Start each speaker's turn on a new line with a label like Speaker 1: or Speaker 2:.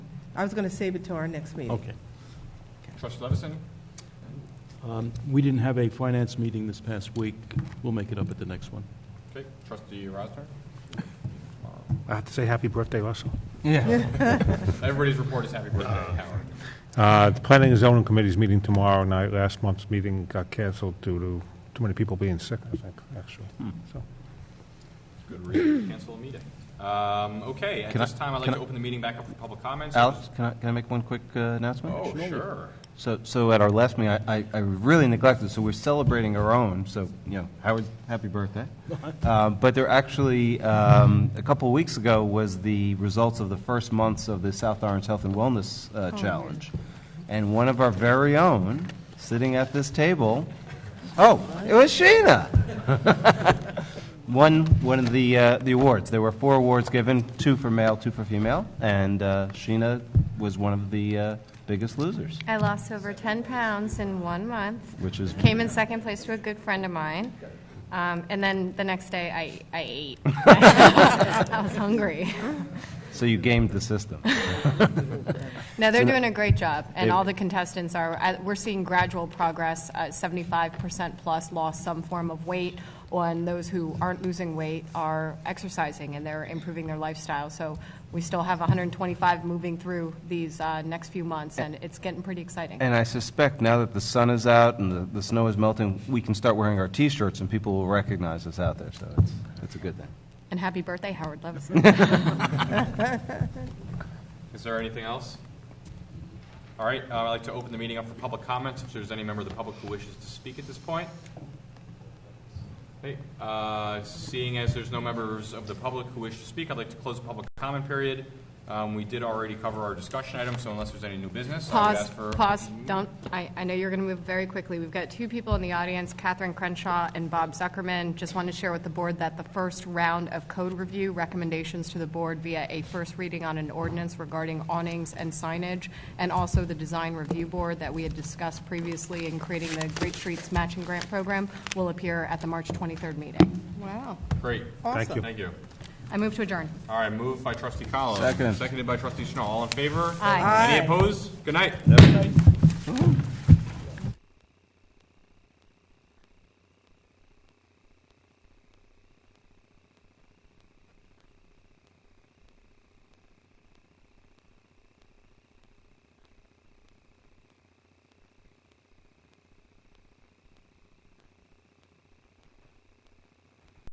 Speaker 1: I was going to save it till our next meeting.
Speaker 2: Okay.
Speaker 3: Trustee Levison?
Speaker 2: Um, We didn't have a finance meeting this past week. We'll make it up at the next one.
Speaker 3: Okay. Trustee Rosner?
Speaker 4: I have to say happy birthday also.
Speaker 3: Everybody's report is happy birthday, Howard.
Speaker 4: Uh, The Planning and Zoning Committee's meeting tomorrow night. Last month's meeting got canceled due to too many people being sick, I think, actually. So,
Speaker 3: Good reason to cancel a meeting. Um, Okay, at
Speaker 5: Can I-
Speaker 3: this time, I'd like
Speaker 5: can
Speaker 3: to
Speaker 5: I-
Speaker 3: open the meeting back up for public comments.
Speaker 5: Alex, can I, can I make one quick uh, announcement?
Speaker 3: Oh, sure.
Speaker 5: So, so at our last meeting, I, I- I really neglected, so we're celebrating our own, so, you know, Howard, happy birthday. Uh, But there actually, um, a couple of weeks ago was the results of the first months of the South Orange Health and Wellness uh, Challenge. And one of our very own, sitting at this table, oh, it was Sheena! Won one of the, uh, the awards. There were four awards given, two for male, two for female, and uh, Sheena was one of the uh, biggest losers.
Speaker 6: I lost over 10 pounds in one month.
Speaker 5: Which is-
Speaker 6: Came in second place to a good friend of mine. Um, And then the next day, I, I ate. I was hungry.
Speaker 5: So you gamed the system.
Speaker 6: No, they're doing a great job, and
Speaker 5: They-
Speaker 6: all the contestants are, I- we're seeing gradual progress. Uh, 75% plus lost some form of weight, and those who aren't losing weight are exercising, and they're improving their lifestyle. So we still have 125 moving through these uh, next few months, and it's getting pretty exciting.
Speaker 5: And I suspect now that the sun is out and the, the snow is melting, we can start wearing our T-shirts and people will recognize us out there, so it's, it's a good thing.
Speaker 6: And happy birthday, Howard Levison.
Speaker 3: Is there anything else? All right, uh, I'd like to open the meeting up for public comments, if there's any member of the public who wishes to speak at this point. Okay, uh, Seeing as there's no members of the public who wish to speak, I'd like to close the public comment period. Um, We did already cover our discussion item, so unless there's any new business, I would
Speaker 6: Pause,
Speaker 3: ask for...
Speaker 6: pause, don't, I, I know you're going to move very quickly. We've got two people in the audience, Catherine Crenshaw and Bob Zuckerman. Just want to share with the board that the first round of code review recommendations to the board via a first reading on an ordinance regarding awnings and signage, and also the design review board that we had discussed previously in creating the Great Streets Matching Grant Program will appear at the March 23rd meeting. Wow.
Speaker 3: Great,
Speaker 4: thank you.
Speaker 3: thank you.
Speaker 6: I move to adjourn.
Speaker 3: All right, moved by trustee Collins.
Speaker 5: Second.
Speaker 3: Seconded by trustee Schnall. All in favor?
Speaker 6: Aye.
Speaker 3: Any opposed? Good night.